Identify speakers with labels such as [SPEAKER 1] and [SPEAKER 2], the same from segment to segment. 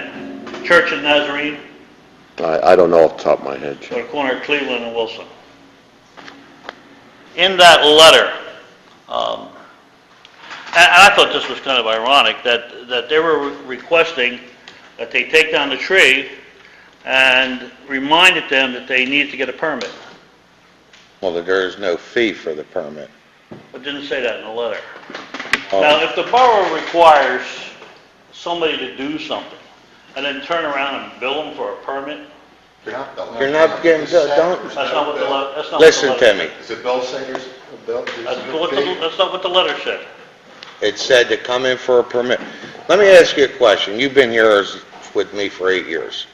[SPEAKER 1] 10. Church of Nazarene,
[SPEAKER 2] I, I don't know off the top of my head.
[SPEAKER 1] or the corner of Cleveland and Wilson. In that letter, um, and and I thought this was kind of ironic, that, that they were requesting that they take down the tree and reminded them that they needed to get a permit.
[SPEAKER 3] Well, there is no fee for the permit.
[SPEAKER 1] But didn't say that in the letter.
[SPEAKER 3] Oh.
[SPEAKER 1] Now, if the borough requires somebody to do something and then turn around and bill them for a permit,
[SPEAKER 4] You're not billing.
[SPEAKER 3] You're not getting-
[SPEAKER 4] It's a
[SPEAKER 3] don't-
[SPEAKER 4] separate-
[SPEAKER 1] that's not what the, le- that's not what the letter...
[SPEAKER 3] Listen to me.
[SPEAKER 4] Is it Bill Singer's, a bill, is
[SPEAKER 1] That's
[SPEAKER 4] it
[SPEAKER 1] not what the,
[SPEAKER 4] a fee?
[SPEAKER 1] that's not what the letter said.
[SPEAKER 3] It said to come in for a permit. Let me ask you a question. You've been here as- with me for eight years,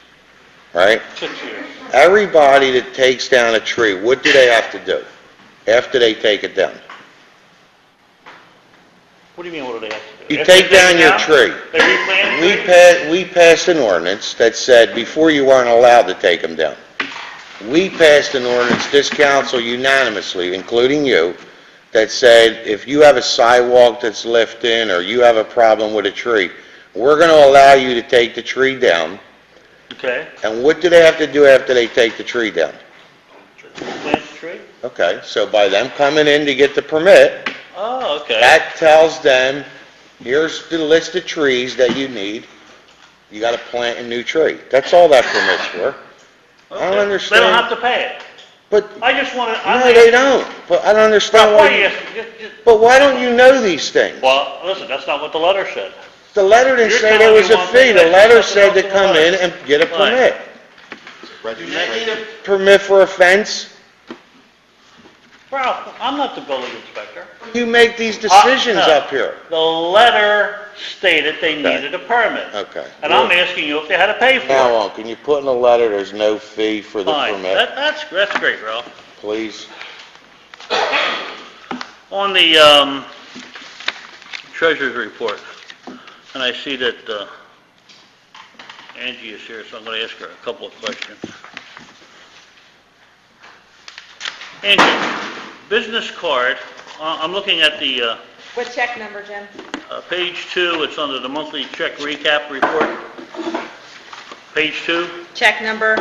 [SPEAKER 3] right?
[SPEAKER 1] Six years.
[SPEAKER 3] Everybody that takes down a tree, what do they have to do after they take it down?
[SPEAKER 1] What do you mean, what do they have to do?
[SPEAKER 3] You
[SPEAKER 1] If they
[SPEAKER 3] take down
[SPEAKER 1] it
[SPEAKER 3] your tree.
[SPEAKER 1] They replant
[SPEAKER 3] We
[SPEAKER 1] the tree?
[SPEAKER 3] passed, we passed an ordinance that said before you weren't allowed to take them down. We passed an ordinance, this council unanimously, including you, that said if you have a sidewalk that's left in or you have a problem with a tree, we're going to allow you to take the tree down.
[SPEAKER 1] Okay,
[SPEAKER 3] And what do they have to do after they take the tree down?
[SPEAKER 1] plant the tree?
[SPEAKER 3] Okay, so by them coming in to get the permit,
[SPEAKER 1] Oh, okay.
[SPEAKER 3] that tells them, here's the list of trees that you need. You got to plant a new tree. That's all that permit's for. I
[SPEAKER 1] Okay.
[SPEAKER 3] don't
[SPEAKER 1] They don't have
[SPEAKER 3] understand.
[SPEAKER 1] to pay it.
[SPEAKER 3] But,
[SPEAKER 1] I just wanted, I...
[SPEAKER 3] no, they don't. But I don't understand
[SPEAKER 1] Why
[SPEAKER 3] why,
[SPEAKER 1] are you
[SPEAKER 3] you-
[SPEAKER 1] asking? Just- just-
[SPEAKER 3] but why don't you know these things?
[SPEAKER 1] Well, listen, that's not what the letter said.
[SPEAKER 3] The letter didn't
[SPEAKER 1] You're
[SPEAKER 3] say there
[SPEAKER 1] telling
[SPEAKER 3] was
[SPEAKER 1] me
[SPEAKER 3] a
[SPEAKER 1] one
[SPEAKER 3] fee.
[SPEAKER 1] thing,
[SPEAKER 3] The
[SPEAKER 1] but
[SPEAKER 3] letter
[SPEAKER 1] there's
[SPEAKER 3] said to
[SPEAKER 1] nothing
[SPEAKER 3] come in
[SPEAKER 1] else.
[SPEAKER 3] and get a
[SPEAKER 1] Right.
[SPEAKER 3] permit.
[SPEAKER 4] Registration.
[SPEAKER 3] Permit for a fence?
[SPEAKER 1] Ralph, I'm not the building inspector.
[SPEAKER 3] You make these decisions
[SPEAKER 1] Uh, no.
[SPEAKER 3] up here.
[SPEAKER 1] The letter stated they needed a permit.
[SPEAKER 3] Okay.
[SPEAKER 1] And I'm asking you if they had to pay for
[SPEAKER 3] Now
[SPEAKER 1] it.
[SPEAKER 3] on, can you put in the letter, there's no fee for the
[SPEAKER 1] Fine, that,
[SPEAKER 3] permit,
[SPEAKER 1] that's, that's great, Ralph.
[SPEAKER 3] please?
[SPEAKER 1] On the, um, treasurer's report, and I see that, uh, Angie is here, so I'm gonna ask her a couple of questions. Angie, business card, I- I'm looking at the, uh,
[SPEAKER 5] What check number, Jim?
[SPEAKER 1] Uh, Page two, it's under the monthly check recap report. Page two,
[SPEAKER 5] Check number,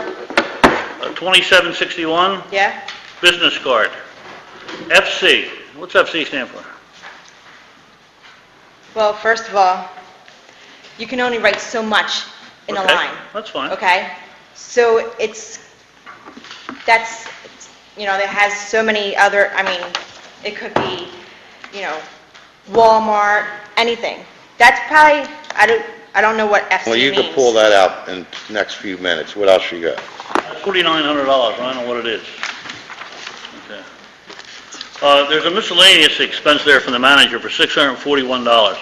[SPEAKER 1] uh, 2761,
[SPEAKER 5] yeah?
[SPEAKER 1] business card. FC, what's FC stand for?
[SPEAKER 5] Well, first of all, you can only write so much in a
[SPEAKER 1] Okay,
[SPEAKER 5] line,
[SPEAKER 1] That's fine.
[SPEAKER 5] okay? So it's, that's, it's- you know, that has so many other, I mean, it could be, you know, Walmart, anything. That's probably, I don't, I don't know what FC means.
[SPEAKER 3] Well, you can pull that out in the next few minutes. What else you got?
[SPEAKER 1] $4,900, I don't know what it is. Okay. Uh, There's a miscellaneous expense there from the manager for $641.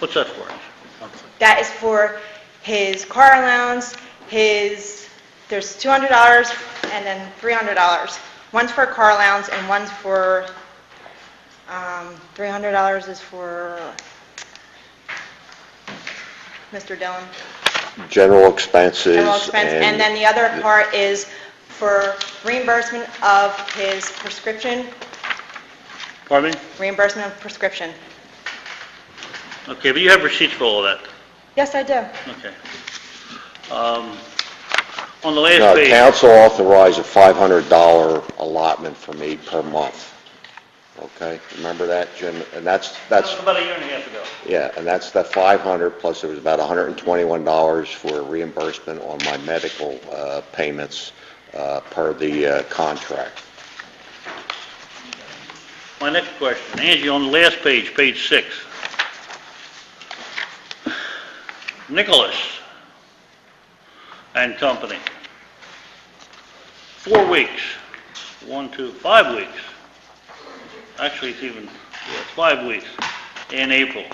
[SPEAKER 1] What's that for?
[SPEAKER 5] That is for his car allowance, his, there's $200 and then $300. One's for car allowance and one's for, um, $300 is for Mr. Dillon.
[SPEAKER 2] General expenses
[SPEAKER 5] General expense, and then the other part is for reimbursement of his prescription,
[SPEAKER 1] Pardon me?
[SPEAKER 5] reimbursement of prescription.
[SPEAKER 1] Okay, but you have receipts for all of that.
[SPEAKER 5] Yes, I do.
[SPEAKER 1] Okay. Um, On the last
[SPEAKER 2] No,
[SPEAKER 1] page...
[SPEAKER 2] uh, council authorized a $500 allotment for me per month. Okay, remember that, Jim? And that's,
[SPEAKER 1] That
[SPEAKER 2] that's,
[SPEAKER 1] was about a year and a half ago.
[SPEAKER 2] yeah, and that's the 500, plus it was about $121 for reimbursement on my medical uh, payments uh, per the uh, contract.
[SPEAKER 1] My next question, Angie, on the last page, page six. Nicholas and Company. Four weeks, one, two, five weeks. Actually, it's even, yeah, it's five weeks in April.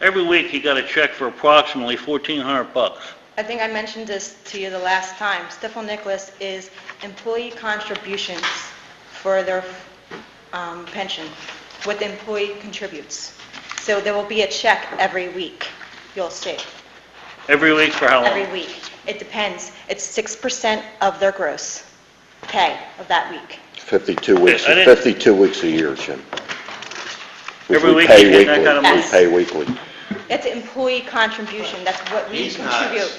[SPEAKER 1] Every week, he got a check for approximately 1,400 bucks.
[SPEAKER 5] I think I mentioned this to you the last time. Stifel Nicholas is employee contributions for their um, pension, what the employee contributes. So there will be a check every week, you'll see,
[SPEAKER 1] Every week for how long?
[SPEAKER 5] every week. It depends. It's 6% of their gross pay of that week.
[SPEAKER 2] 52 weeks,
[SPEAKER 1] I didn't-
[SPEAKER 2] 52 weeks a year, Jim. We-
[SPEAKER 1] Every
[SPEAKER 2] we
[SPEAKER 1] week
[SPEAKER 2] pay
[SPEAKER 1] you get that
[SPEAKER 2] weekly.
[SPEAKER 1] kind of
[SPEAKER 5] money?
[SPEAKER 2] We pay weekly.
[SPEAKER 5] It's employee contribution, that's what we
[SPEAKER 4] He's not-
[SPEAKER 5] contribute.